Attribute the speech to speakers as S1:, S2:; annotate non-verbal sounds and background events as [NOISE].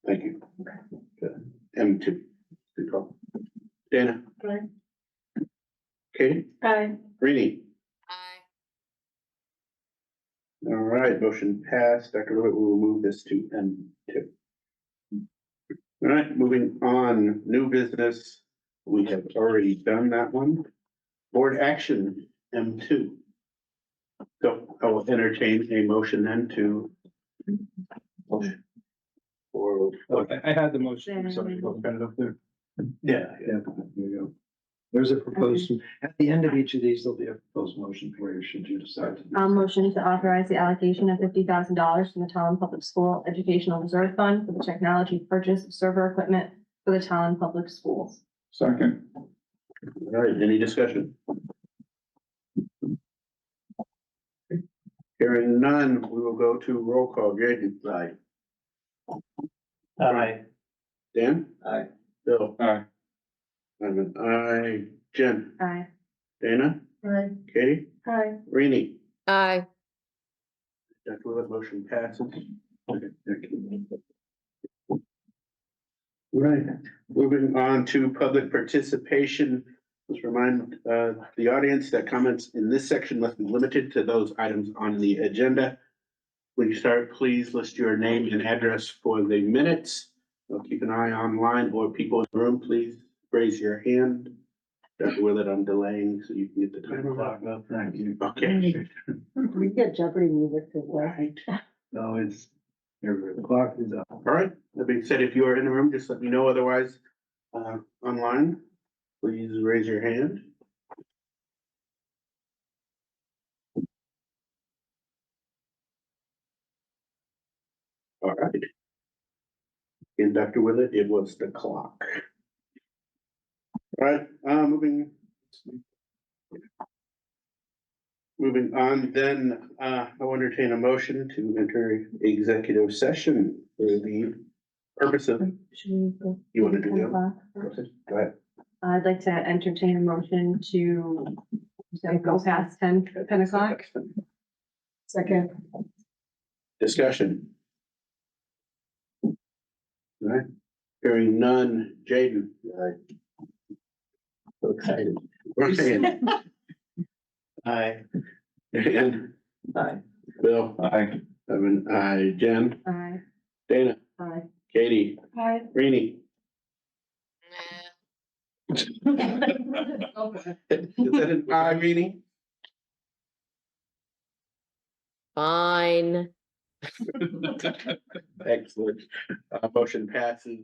S1: M two. Good call. Dana.
S2: Aye.
S1: Katie,
S2: Aye.
S1: Rainey.
S3: Aye.
S1: All right, motion passed. Dr. Levitt we will move this to M two. All right, moving on, new business. We have already done that one. Board action, M two. So I will entertain a motion then to. Or,
S4: Oh,
S1: oh,
S4: Okay, I had the motion, sorry, I'll put it up there.
S1: yeah,
S4: Yeah, there you go. There's a proposed, at the end of each of these, there'll be a proposed motion for you, should you decide. to do
S5: I'll motion to authorize the allocation of fifty thousand dollars from the Tallinn Public School Educational Reserve Fund for the technology purchase of server equipment for the Tallinn Public Schools.
S4: Second.
S1: All right, any discussion? Hearing none, we will go to roll call. Jaden, aye.
S6: Aye.
S1: Dan?
S4: Aye.
S1: Bill?
S4: Aye.
S1: I'm an aye. Jen?
S5: Aye.
S1: Dana?
S2: Aye.
S1: Katie?
S2: Aye.
S1: Rainey?
S3: Aye.
S1: Dr. Willett, motion passes. Right, moving on to public participation. Let's remind uh, the audience that comments in this section must be limited to those items on the agenda. When you start, please list your name and address for the minutes. So Keep an eye online or people in the room, please raise your hand. Dr. Willett, I'm delaying so you can get the timer up.
S4: Thank you.
S1: Okay.
S2: We get Jeopardy music to play.
S1: Right.
S4: No, it's, the clock is up.
S1: All right, that being said, if you are in the room, just let me know, otherwise, uh, online, please raise your hand. All right. And Dr. Willett, it was the clock. All right, uh, moving. Moving on, then, uh, I'll entertain a motion to enter executive session for the purpose of,
S5: Should we go?
S1: you want to do that? Go
S5: that?
S1: ahead. Go ahead.
S5: I'd like to entertain a motion to to go past ten, ten o'clock.
S2: Second.
S1: Discussion. All right, hearing none, Jaden. So excited. Ryan. Aye. Dan.
S6: Aye.
S1: Bill.
S4: Aye.
S1: I'm an aye. Jen.
S5: Aye.
S1: Dana.
S5: Aye.
S1: Katie.
S2: Aye.
S5: [LAUGHS]
S1: Rainey.
S3: Nah.
S1: Is that an aye, Rainey?
S3: Fine.
S4: [LAUGHS]
S1: Excellent. Uh, motion passes.